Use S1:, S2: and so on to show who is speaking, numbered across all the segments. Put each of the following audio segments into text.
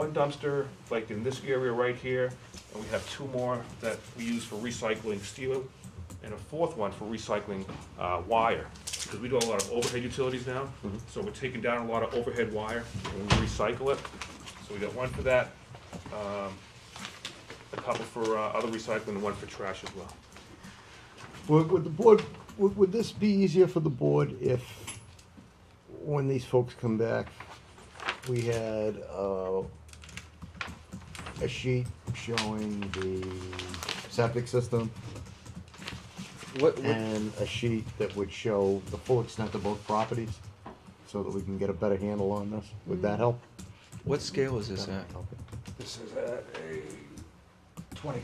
S1: one dumpster, like in this area right here, and we have two more that we use for recycling steel, and a fourth one for recycling uh, wire, because we do a lot of overhead utilities now, so we're taking down a lot of overhead wire, and we recycle it. So we got one for that, um, a couple for uh, other recycling, and one for trash as well.
S2: Would, would the board, would, would this be easier for the board if, when these folks come back, we had, uh, a sheet showing the septic system
S3: What, what,
S2: and a sheet that would show the full extent of both properties, so that we can get a better handle on this? Would that help?
S3: what scale is this at?
S4: This is at a twenty,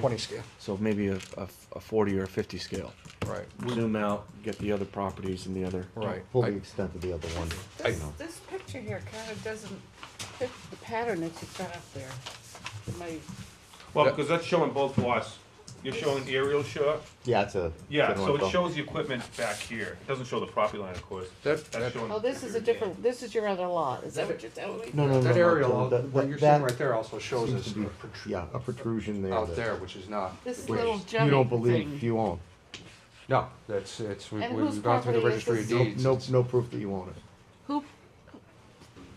S4: twenty scale,
S3: So maybe a, a, a forty or a fifty scale.
S4: right,
S3: Zoom out, get the other properties and the other.
S4: right.
S2: Full the
S4: I-
S2: extent of the other one.
S1: I
S5: This,
S1: know.
S5: this picture here kind of doesn't fit the pattern that you've got up there. My,
S1: Well,
S4: Yeah.
S1: because that's showing both lots. You're showing aerial shot.
S2: Yeah, it's a.
S1: Yeah,
S2: it's an
S1: so it
S2: ortho.
S1: shows the equipment back here. It doesn't show the property line, of course.
S4: That,
S1: That's
S4: that,
S1: showing.
S5: oh, this is a different, this is your other lot, is that what you're telling me?
S2: No, no, no.
S4: that
S2: no,
S4: aerial,
S2: that-
S4: what you're
S2: that-
S4: seeing right there also shows
S2: seems
S4: us
S2: to be-
S4: a protrusion
S2: Yeah, a protrusion there.
S4: out
S2: that-
S4: there, which is not.
S5: This
S2: which
S5: little
S2: You
S5: jutting
S2: don't believe
S5: thing.
S2: you own.
S4: No, that's, it's, we-
S5: And
S4: we-
S5: whose
S4: we've gone through the
S5: property is
S4: registry
S2: No,
S4: of
S5: this?
S4: deeds.
S2: no,
S4: It's-
S2: no proof that you own it.
S5: Who,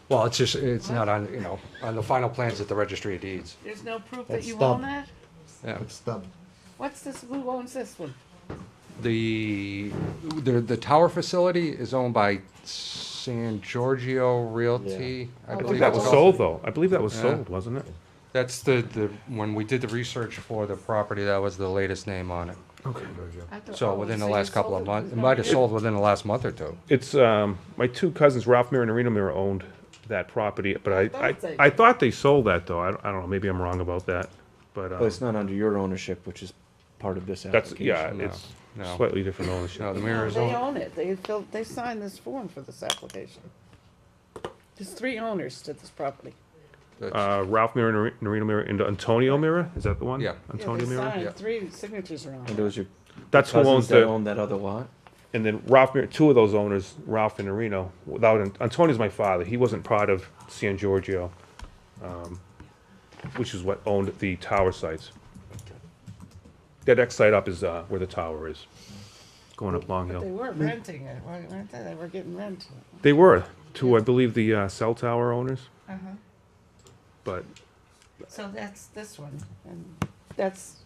S4: Well, it's just, it's not on, you know, on the final plans at the registry of deeds.
S5: there's no proof that
S2: That's
S5: you
S2: stub.
S5: own that?
S4: Yeah.
S2: It's the,
S5: What's this, who owns this one?
S4: The, the, the tower facility is owned by San Giorgio Realty.
S5: I
S4: believe
S5: think
S4: it's
S5: Oh, that was
S4: called.
S1: though. I believe that was
S4: Yeah. sold,
S1: wasn't it?
S4: That's the, the, when we did the research for the property, that was the latest name on it.
S5: I thought-
S4: So
S5: oh,
S4: within the
S5: you
S4: last couple
S5: sold
S4: of
S5: it.
S4: months, it
S5: No,
S4: might have
S5: you-
S4: sold within the last month or two.
S1: It's, um, my two cousins, Ralph Mir and Reno Mir, owned that property, but I, I,
S5: thought they-
S1: I thought they sold that though. I don't, I don't know, maybe I'm wrong about that. But,
S3: But
S1: uh,
S3: it's not under your ownership, which is part of this
S1: that's,
S3: application.
S1: yeah,
S4: no,
S1: it's
S4: no.
S1: slightly different
S4: No, the
S1: ownership.
S4: mirror is
S5: They
S4: on.
S5: own it, they filled, they signed this form for this application. There's three owners to this property.
S4: that's-
S1: Uh, Ralph Mir and Reno Mir and Antonio Mir, is that the one?
S4: Yeah.
S5: Yeah,
S1: Antonio
S5: They
S1: Mir?
S4: Yeah.
S5: signed, three signatures are on
S3: And
S5: it.
S3: those are
S1: That's who
S3: cousins
S1: owns
S3: that
S1: the,
S3: own that other lot?
S1: and then Ralph Mir, two of those owners, Ralph and Reno, without, Antonio's my father. He wasn't part of San Giorgio, um, which is what owned the tower sites. That next site up is, uh, where the tower is, going up Long
S5: But they
S1: Hill.
S5: weren't renting it, weren't weren't they? They were getting rent.
S1: They were, two, I believe, the, uh, cell tower owners, but
S5: So that's this one, and that's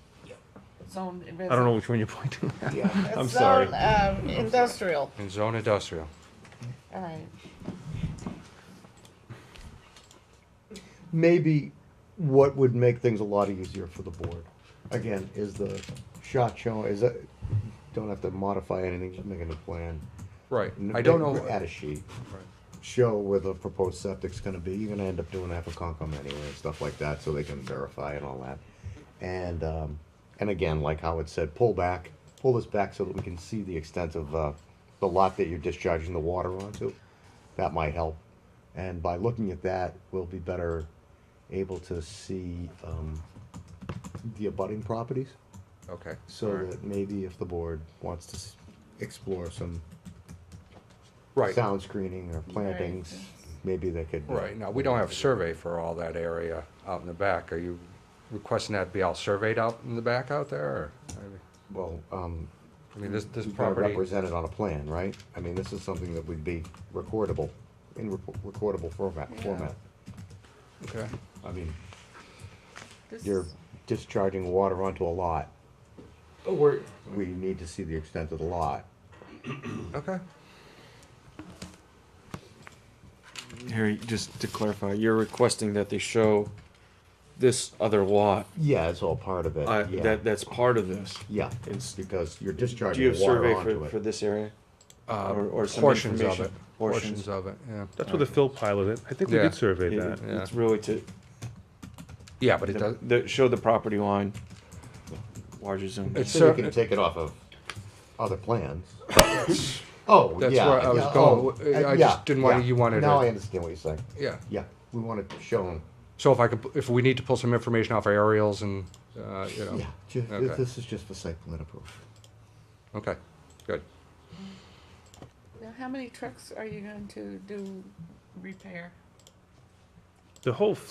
S5: zone.
S1: I don't know which one you're pointing at. I'm
S5: It's
S1: sorry.
S5: zone, um, industrial,
S4: In zone industrial.
S5: all right.
S2: maybe what would make things a lot easier for the board, again, is the shot show, is that, don't have to modify anything, just make a new plan.
S4: Right.
S2: N-
S4: I don't
S2: make- Add
S4: know,
S2: a sheet, show where the proposed septic's gonna be, you're gonna end up doing that for Concom anyway, and stuff like that, so they can verify and all that. And, um, and again, like Howard said, pull back, pull this back so that we can see the extent of, uh, the lot that you're discharging the water onto. That might help. And by looking at that, we'll be better able to see, um, the abutting properties.
S4: okay.
S2: So that maybe if the board wants to s- explore some
S4: Right,
S2: sound screening or plantings, maybe they could. uh,
S4: right. Now, we don't have survey for all that area out in the back. Are you requesting that be all surveyed out in the back out there? or-
S2: Well, um,
S4: I mean, this, this
S2: we've got to
S4: property,
S2: represent it on a plan, right? I mean, this is something that would be recordable, in rec- recordable format, format.
S4: okay.
S2: I mean,
S5: This
S2: you're
S5: is-
S2: discharging water onto a lot,
S4: We're,
S2: we need to see the extent of the lot.
S4: okay.
S3: Harry, just to clarify, you're requesting that they show this other lot,
S2: Yeah, it's all part of it,
S3: uh,
S2: yeah,
S3: that, that's part of this.
S2: yeah,
S3: It's-
S2: because you're
S3: Do you
S2: discharging
S3: have
S2: water
S3: survey for,
S2: onto
S3: for
S2: it.
S3: this area?
S4: Uh,
S3: Or- or some
S4: Portions of
S3: information.
S4: it,
S3: Portions.
S4: portions of it, yeah.
S1: That's where the fill pilot, I think we
S4: Yeah.
S1: did survey that.
S4: Yeah.
S3: It's really to,
S4: Yeah, but it does,
S3: the, the- show the property line, larger zoom.
S4: It's
S2: So you
S4: cer-
S2: can take it off of other plans. Oh,
S4: That's
S2: yeah,
S4: where I was
S2: yeah,
S4: going.
S2: oh,
S4: I
S2: uh,
S4: just
S2: yeah,
S4: didn't want
S2: yeah.
S4: you wanted
S2: Now
S4: it-
S2: I understand what you're saying.
S4: yeah.
S2: Yeah, we want to show them.
S4: So if I could, if we need to pull some information off our aerials and, uh, you know,
S2: Yeah, ju-
S4: okay.
S2: this is just for site plan approval.
S4: okay, good.
S5: Now, how many trucks are you going to do repair?
S1: The whole